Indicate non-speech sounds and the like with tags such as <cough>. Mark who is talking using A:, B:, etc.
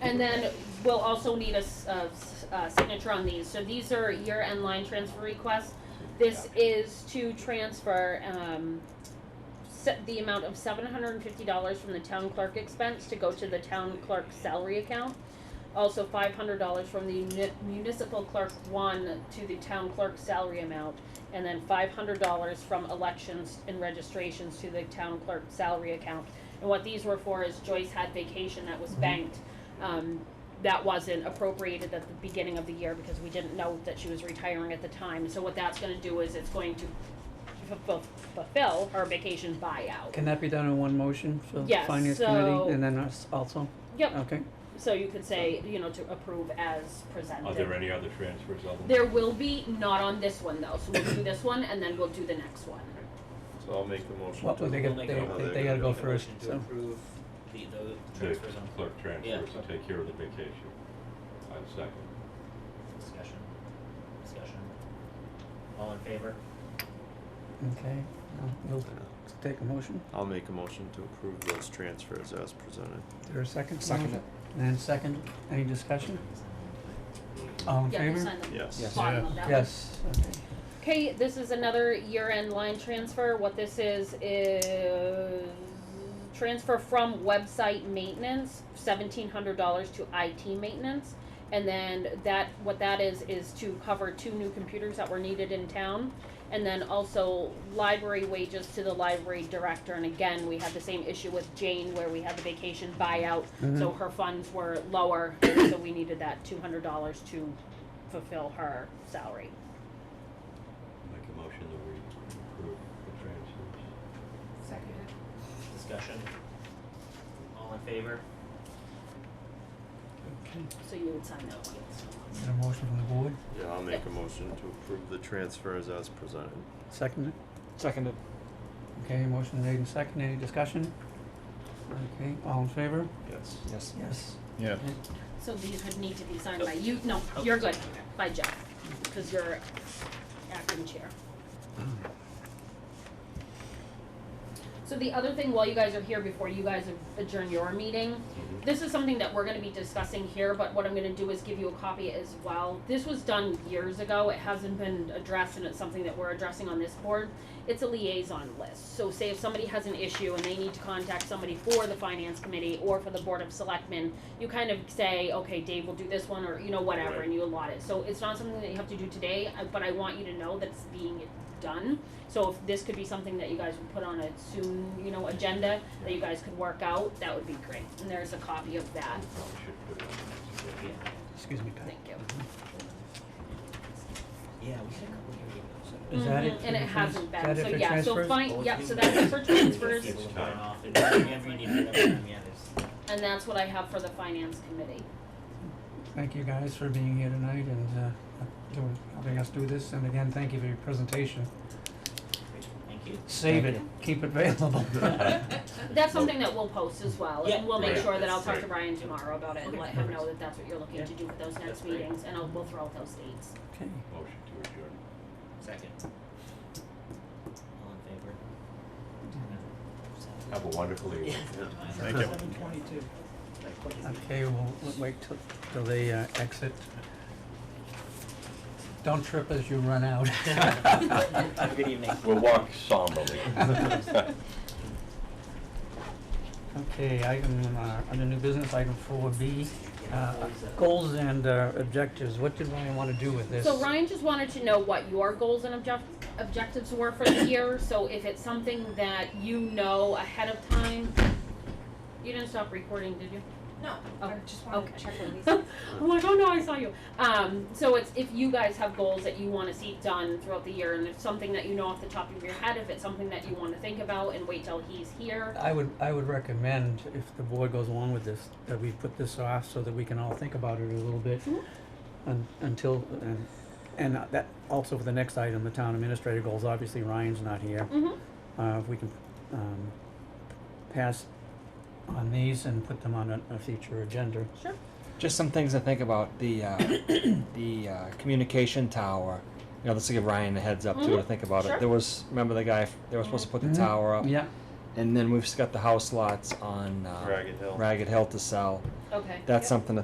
A: And then we'll also need a, s- a s- a signature on these. So these are year-end line transfer requests. This is to transfer, um, set the amount of seven hundred and fifty dollars from the town clerk expense to go to the town clerk salary account. Also five hundred dollars from the muni- municipal clerk one to the town clerk salary amount. And then five hundred dollars from elections and registrations to the town clerk salary account. And what these were for is Joyce had vacation that was banked. Um, that wasn't appropriated at the beginning of the year because we didn't know that she was retiring at the time. So what that's gonna do is it's going to fulfill, fulfill her vacation buyout.
B: Can that be done in one motion for the
A: Yes,
B: finance
A: so-
B: committee and then us also?
A: Yep,
B: Okay,
A: so you could say, you know, to approve as presented.
C: Are there any other transfers other than?
A: There will be, not on this one though, so we'll do this one and then we'll do the next one.
D: So I'll make the motion
B: Well,
D: to.
B: they
E: We'll
B: got-
E: make
B: they-
E: a-
D: they-
E: we'll
D: they
B: gotta
E: make
B: go
E: a
B: first,
E: motion
B: so.
E: To approve the, the
C: The
E: transfers on
C: clerk transfers
E: Yeah.
C: to take care of the vacation. I second.
E: discussion, discussion. All in favor?
B: okay. Uh, We'll take a motion.
D: I'll make a motion to approve those transfers as presented.
B: Is there a second? to the
F: Second
B: motion? And second, any discussion? All in
A: Yeah, you
B: favor?
A: sign the
D: Yes.
F: Yes.
A: bottom of that one.
B: Yes, okay.
A: Okay, this is another year-end line transfer. What this is, is transfer from website maintenance, seventeen hundred dollars to IT maintenance. And then that, what that is, is to cover two new computers that were needed in town. And then also library wages to the library director. And again, we had the same issue with Jane where we had the vacation buyout. So her funds were lower, and so we needed that two hundred dollars to fulfill her salary.
C: Make a motion that we approve the transfers.
E: Discussion. All in favor?
A: So you would sign that one.
B: Is there a motion from the board?
D: Yeah, I'll make a motion to approve the transfers as presented.
B: Seconded?
F: Seconded.
B: Okay, motion made and seconded, any discussion? Okay, all in favor?
D: Yes.
F: Yes.
B: Yes.
F: Yeah.
A: So these would need to be signed by you, no, you're good, by Jeff, because you're acting chair. So the other thing, while you guys are here, before you guys adjourn your meeting, this is something that we're gonna be discussing here, but what I'm gonna do is give you a copy as well. This was done years ago, it hasn't been addressed, and it's something that we're addressing on this board. It's a liaison list, so say if somebody has an issue and they need to contact somebody for the finance committee or for the board of selectmen, you kind of say, okay, Dave will do this one, or, you know, whatever, and you allot it. So it's not something that you have to do today, uh, but I want you to know that it's being done. So if this could be something that you guys would put on a soon, you know, agenda, that you guys could work out, that would be great. And there's a copy of that,
C: Probably should put it on
E: Yeah,
B: Excuse me, Pat.
A: thank you.
E: yeah, we had a couple here. we
B: Is that it?
A: Mhm, And it
B: Is that
A: hasn't been,
B: it
A: so
B: for
A: yeah, so
B: transfers?
A: fine, yep, so that's it for
E: were
A: transfers,
E: so- People
C: It's
E: going
C: time.
E: off and whenever you need it, whenever you need it, yeah,
A: and that's what I have for the finance committee.
B: Thank you guys for being here tonight and, uh, doing, helping us do this, and again, thank you for your presentation.
E: there's, great, thank you.
B: Save it, keep it
E: <laughs>
B: available.
C: <laughs>
A: That's something that we'll post as well, and
E: Yeah.
A: we'll make
C: Right.
A: sure that I'll talk
C: That's
A: to Ryan tomorrow about it and let him know that that's what you're looking to do for those
E: That's
A: next
E: great.
A: meetings, and I'll, we'll throw out those dates.
B: Okay,
C: Motion to adjourn.
E: Second. All in favor? Seven.
C: Have a wonderful evening.
D: Thank you.
E: Seven twenty-two.
B: okay, we'll we'll wait till, till they, uh, exit. Don't trip as you run
E: <laughs>
B: out.
E: Have a good evening.
C: We'll walk somberly.
E: <laughs>
C: <laughs>
B: Okay, item, uh, under new business, item four B, uh, goals and, uh, objectives, what did Ryan wanna do with this?
A: So Ryan just wanted to know what your goals and object- objectives were for the year, so if it's something that you know ahead of time. You didn't stop recording, did you?
G: No,
A: Oh, <laughs>
G: I just wanted
A: okay.
G: to check on these.
A: I'm like, oh no, I saw you. Um, so it's if you guys have goals that you want to see done throughout the year, and if something that you know off the top of your head, if it's something that you want to think about and wait till he's here.
B: I would, I would recommend, if the board goes along with this, that we put this off so that we can all think about it a little bit.
A: Mhm.
B: un- Until, and, and that, also for the next item, the town administrator goals, obviously Ryan's not here.
A: Mm-hmm.
B: Uh, if we can, um, pass on these and put them on a, a future agenda.
A: Sure.
F: Just some things to think about. The uh, the uh, communication tower. You know, this will give Ryan a heads up too to
A: Mhm.
F: think about
A: Sure.
F: it. There was remember the guy f- they were supposed to put the
B: Mhm.
F: tower up,
B: Yeah,
F: and then we've just got the house lots on uh,
D: Ragged Hill.
F: Ragged Hill to sell.
A: Okay.
F: That's something to